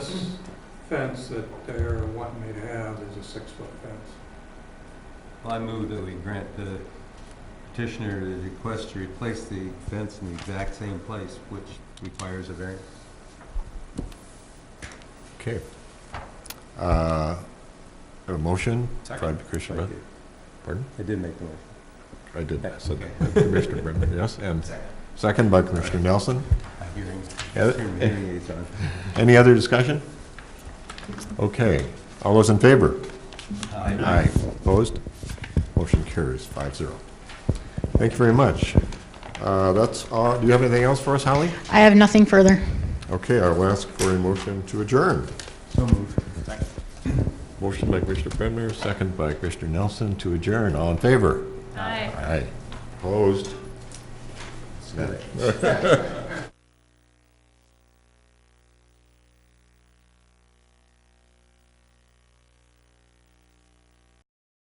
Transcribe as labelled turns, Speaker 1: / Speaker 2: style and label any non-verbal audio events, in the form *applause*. Speaker 1: fence that they're wanting me to have is a six-foot fence.
Speaker 2: I move that we grant the petitioner the request to replace the fence in the exact same place, which requires a variance.
Speaker 3: Okay. Uh, A motion?
Speaker 4: Second.
Speaker 3: By Commissioner Brennan, pardon?
Speaker 2: I did make the motion.
Speaker 3: I did, I said
Speaker 2: Okay.
Speaker 3: that. Commissioner Brennan, yes, and second by Commissioner Nelson.
Speaker 2: Hearing,
Speaker 3: Yeah,
Speaker 2: hearing hearing aids on.
Speaker 3: Any other discussion? Okay, all those in favor? *laughs* Aye. Opposed? Motion carries five zero. Thank you very much. Uh, That's, all. do you have anything else for us, Holly?
Speaker 5: I have nothing further.
Speaker 3: Okay, I'll ask for a motion to adjourn.
Speaker 2: So moved.
Speaker 3: Motion by Commissioner Brenner, second by Commissioner Nelson to adjourn. All in favor? Aye. Opposed?